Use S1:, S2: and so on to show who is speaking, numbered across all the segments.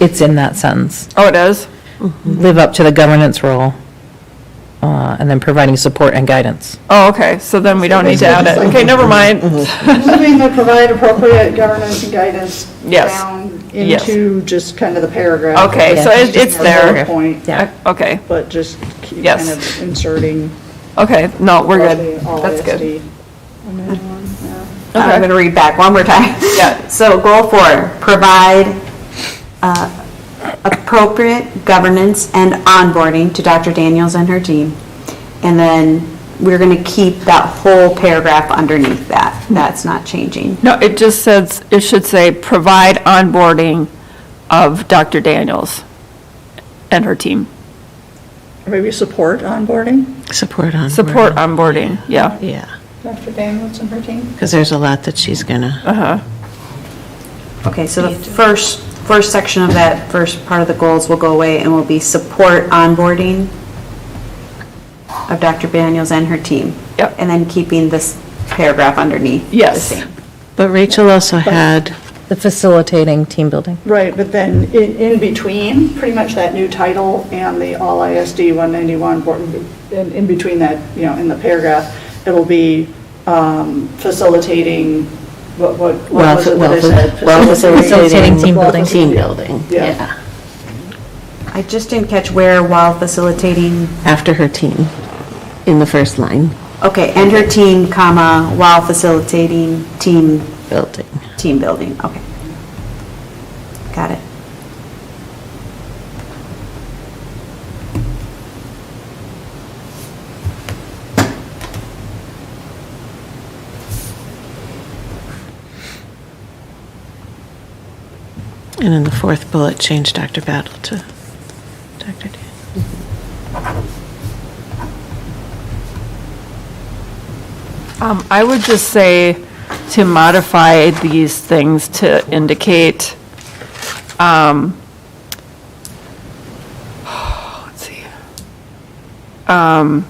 S1: it's in that sentence.
S2: Oh, it does?
S1: Live up to the governance role, uh, and then providing support and guidance.
S2: Oh, okay, so then we don't need to add it. Okay, never mind.
S3: Assuming they provide appropriate governance and guidance
S2: Yes.
S3: down
S2: Yes.
S3: into just kind of the paragraph.
S2: Okay,
S1: so
S2: it-
S3: Just
S2: it's
S3: more
S2: there.
S3: bullet Point,
S1: Yeah.
S2: Okay,
S3: but just keep
S2: Yes.
S3: kind of inserting.
S2: okay, no, we're
S3: roughly
S2: good.
S3: all
S2: That's good.
S3: ISD.
S4: I'm going to read back one more time.
S2: Yeah.
S4: So goal four, provide uh, appropriate governance and onboarding to Dr. Daniels and her team. And then we're going to keep that whole paragraph underneath that.
S2: Hmm.
S4: That's not changing.
S2: No, it just says, it should say, provide onboarding of Dr. Daniels and her team.
S3: Maybe support onboarding,
S5: Support on.
S2: Support onboarding, yeah.
S5: Yeah,
S3: Dr. Daniels and her team.
S5: because there's a lot that she's gonna,
S4: Okay, so the first, first section of that first part of the goals will go away and will be support onboarding of Dr. Daniels and her team.
S2: Yep.
S4: And then keeping this paragraph underneath. the
S2: Yes.
S4: same.
S5: but Rachel also had,
S1: The facilitating team building.
S3: Right, but then in, in between, pretty much that new title and the all ISD 191, board- in, in between that, you know, in the paragraph, it'll be um, facilitating, what, what what was it that I said?
S1: Facilitating team building.
S6: Team building,
S3: Yeah.
S6: yeah,
S4: I just didn't catch where while facilitating
S6: after her team, in the first line,
S4: Okay, and her team, comma, while facilitating team,
S6: building.
S4: team building, okay. Got it.
S5: and in the fourth bullet, change Dr. Battle to Dr. Dan.
S2: Um, I would just say to modify these things to indicate, um, let's see. Um,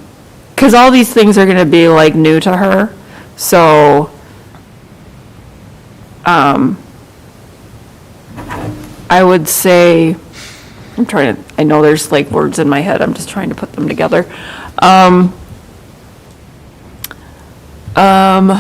S2: cause all these things are gonna be like new to her, so, um, I would say, I'm trying to, I know there's like words in my head, I'm just trying to put them together. Um, um,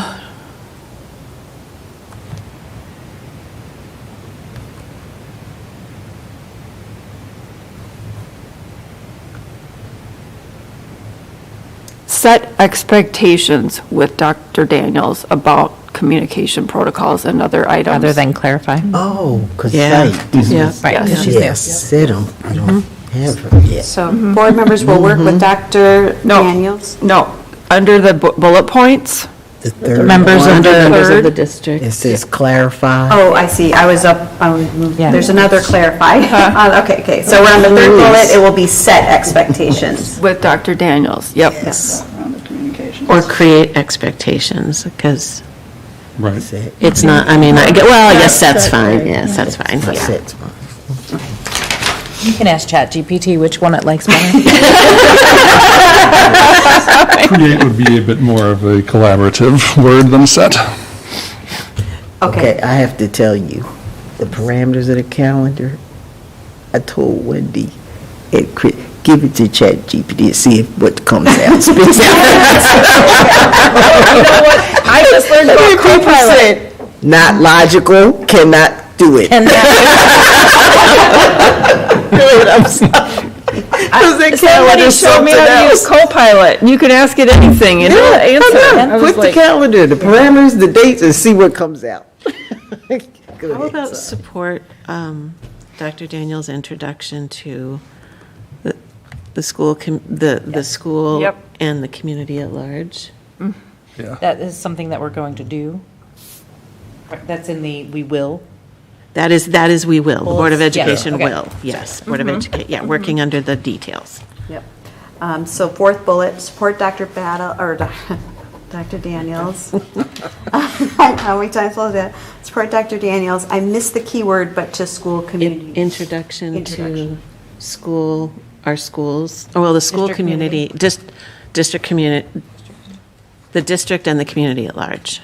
S2: set expectations with Dr. Daniels about communication protocols and other items.
S1: Rather than clarify.
S7: Oh, because
S5: Yeah.
S7: right. this
S5: Yeah.
S7: is-
S1: Right, 'cause
S7: Yes,
S1: she's there.
S7: said 'em. I don't have her yet.
S4: So board members will work with Dr.
S2: No.
S4: Daniels?
S2: No, under the bu- bullet points,
S7: The third
S1: Members
S7: one,
S1: of
S6: Under
S1: the,
S6: members of the
S2: Third.
S6: district.
S7: It says clarify.
S4: Oh, I see, I was up, I was-
S1: Yeah.
S4: there's another clarify. Uh, Okay, okay, so we're on the third bullet, it will be set expectations.
S2: with Dr. Daniels, yep.
S3: Around the communications.
S5: Or create expectations, because
S7: Right. Set,
S6: It's not, I mean, I, get- well, yes, that's fine, yes, that's fine, yeah.
S7: set's fine.
S1: you can ask ChatGPT which one it likes better.
S8: Create would be a bit more of a collaborative word than set.
S7: Okay,
S4: Okay,
S7: I have to tell you, the parameters of the calendar, I told Wendy, it, cre- give it to ChatGPT and see if what comes out. spits out.
S2: I just learned about
S7: Not logical, cannot do it.
S1: And that-
S2: Somebody showed me how to use Copilot, and you can ask it anything, and it'll
S7: Yeah, I
S2: answer.
S7: know.
S2: I was
S7: Put the
S2: like-
S7: calendar, the parameters, the dates, and see what comes out. Go
S5: How
S7: ahead.
S5: about support um, Dr. Daniels' introduction to the, the school, com- the, the school
S2: Yep.
S5: and the community at large?
S1: Mm. That is something that we're going to do. That's in the, we will.
S5: That is, that is we will, the Board of
S1: Bullets, yeah,
S5: Education
S1: okay. Mm-hmm.
S5: will, yes, Board of Education, yeah, working under the details.
S4: yep. Um, So fourth bullet, support Dr. Battle, or Doc- Dr. Daniels. How many times was that? Support Dr. Daniels, I missed the keyword, but to school
S5: In-
S4: community.
S5: Introduction to
S4: Introduction.
S5: school, our schools, oh, well, the school community, just, district community, the district and the community at large.